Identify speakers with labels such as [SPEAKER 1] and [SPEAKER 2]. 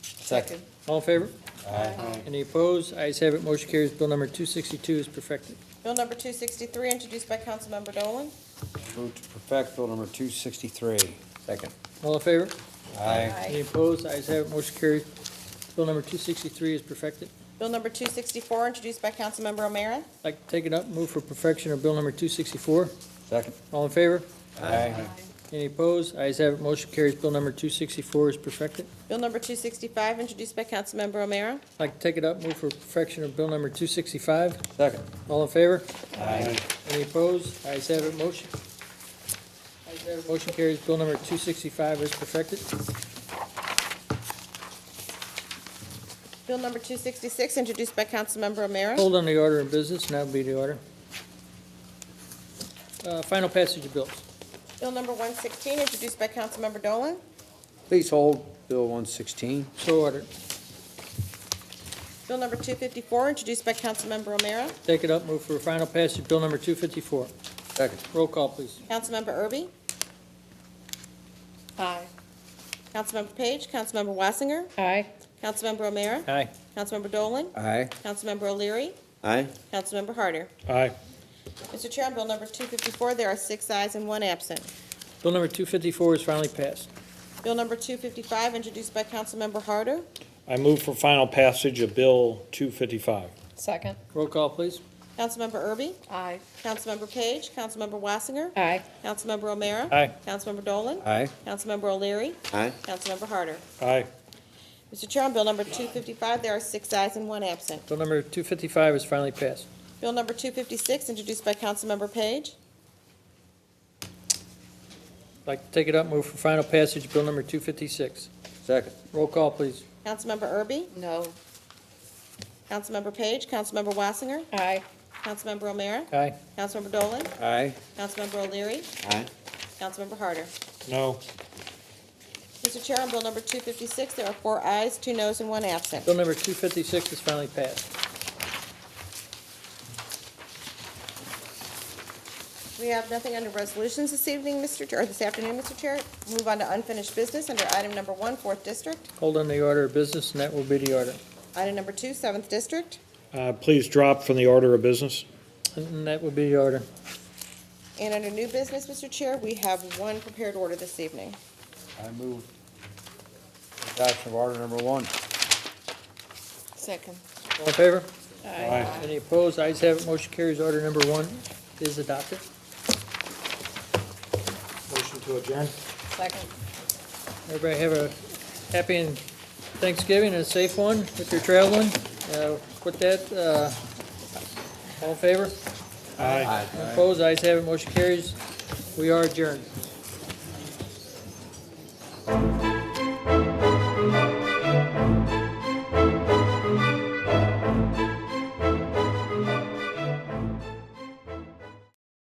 [SPEAKER 1] Second.
[SPEAKER 2] All in favor?
[SPEAKER 1] Aye.
[SPEAKER 2] Any opposed? Ayes have it, motion carries. Bill number 262 is perfected.
[SPEAKER 3] Bill number 263, introduced by Councilmember Dolan.
[SPEAKER 1] Move to perfect Bill number 263. Second.
[SPEAKER 2] All in favor?
[SPEAKER 1] Aye.
[SPEAKER 2] Any opposed? Ayes have it, motion carries. Bill number 263 is perfected.
[SPEAKER 3] Bill number 264, introduced by Councilmember O'Meara.
[SPEAKER 2] I'd Like to take it up, move for perfection of bill number 264.
[SPEAKER 1] Second.
[SPEAKER 2] All in favor?
[SPEAKER 1] Aye.
[SPEAKER 2] Any opposed? Ayes have it, motion carries. Bill number 264 is perfected.
[SPEAKER 3] Bill number 265, introduced by Councilmember O'Meara.
[SPEAKER 2] I'd Like to take it up, move for perfection of bill number 265.
[SPEAKER 1] Second.
[SPEAKER 2] All in favor?
[SPEAKER 1] Aye.
[SPEAKER 2] Any opposed? Ayes have it, motion. Ayes have it, motion carries. Bill number 265 is perfected.
[SPEAKER 3] Bill number 266, introduced by Councilmember O'Meara.
[SPEAKER 2] Hold on the order of business, and that would be the order. Uh, Final passage of bills.
[SPEAKER 3] Bill number 116, introduced by Councilmember Dolan.
[SPEAKER 1] Please hold Bill 116.
[SPEAKER 2] So ordered.
[SPEAKER 3] Bill number 254, introduced by Councilmember O'Meara.
[SPEAKER 2] Take it up, move for final passage, bill number 254.
[SPEAKER 1] Second.
[SPEAKER 2] Roll call, please.
[SPEAKER 3] Councilmember Erby? Aye. Councilmember Page, Councilmember Wassinger,
[SPEAKER 4] Aye.
[SPEAKER 3] Councilmember O'Meara,
[SPEAKER 2] Aye.
[SPEAKER 3] Councilmember Dolan,
[SPEAKER 1] Aye.
[SPEAKER 3] Councilmember O'Leary,
[SPEAKER 1] Aye.
[SPEAKER 3] Councilmember Harder.
[SPEAKER 2] Aye.
[SPEAKER 3] Mr. Chair, on Bill number 254, there are six ayes and one absent.
[SPEAKER 2] Bill number 254 is finally passed.
[SPEAKER 3] Bill number 255, introduced by Councilmember Harder.
[SPEAKER 5] I move for final passage of Bill 255.
[SPEAKER 4] Second.
[SPEAKER 2] Roll call, please.
[SPEAKER 3] Councilmember Erby,
[SPEAKER 4] Aye.
[SPEAKER 3] Councilmember Page, Councilmember Wassinger,
[SPEAKER 4] Aye.
[SPEAKER 3] Councilmember O'Meara.
[SPEAKER 5] Aye.
[SPEAKER 3] Councilmember Dolan.
[SPEAKER 1] Aye.
[SPEAKER 3] Councilmember O'Leary.
[SPEAKER 1] Aye.
[SPEAKER 3] Councilmember Harder.
[SPEAKER 5] Aye.
[SPEAKER 3] Mr. Chair, on Bill number 255, there are six ayes and one absent.
[SPEAKER 2] Bill number 255 is finally passed.
[SPEAKER 3] Bill number 256, introduced by Councilmember Page.
[SPEAKER 2] Like to take it up, move for final passage, bill number 256.
[SPEAKER 1] Second.
[SPEAKER 2] Roll call, please.
[SPEAKER 3] Councilmember Erby,
[SPEAKER 4] No.
[SPEAKER 3] Councilmember Page, Councilmember Wassinger,
[SPEAKER 4] Aye.
[SPEAKER 3] Councilmember O'Meara,
[SPEAKER 2] Aye.
[SPEAKER 3] Councilmember Dolan,
[SPEAKER 1] Aye.
[SPEAKER 3] Councilmember O'Leary,
[SPEAKER 1] Aye.
[SPEAKER 3] Councilmember Harder.
[SPEAKER 5] No.
[SPEAKER 3] Mr. Chair, on Bill number 256, there are four ayes, two noes, and one absent.
[SPEAKER 2] Bill number 256 is finally passed.
[SPEAKER 3] We have nothing under resolutions this evening, Mr. Chair, or this afternoon, Mr. Chair. Move on to unfinished business under item number one, Fourth District,
[SPEAKER 2] Hold on the order of business, and that will be the order.
[SPEAKER 3] item number two, Seventh District,
[SPEAKER 5] Uh, Please drop from the order of business.
[SPEAKER 2] And that will be the order.
[SPEAKER 3] and under new business, Mr. Chair, we have one prepared order this evening.
[SPEAKER 1] I move adoption of order number one.
[SPEAKER 4] Second.
[SPEAKER 2] All in favor?
[SPEAKER 5] Aye.
[SPEAKER 2] Any opposed? Ayes have it, motion carries. Order number one is adopted.
[SPEAKER 5] Motion to adjourn.
[SPEAKER 4] Second.
[SPEAKER 2] Everybody have a happy and Thanksgiving and a safe one if you're traveling. Uh, With that, uh, all in favor?
[SPEAKER 5] Aye.
[SPEAKER 2] Opposed? Ayes have it, motion carries. We are adjourned.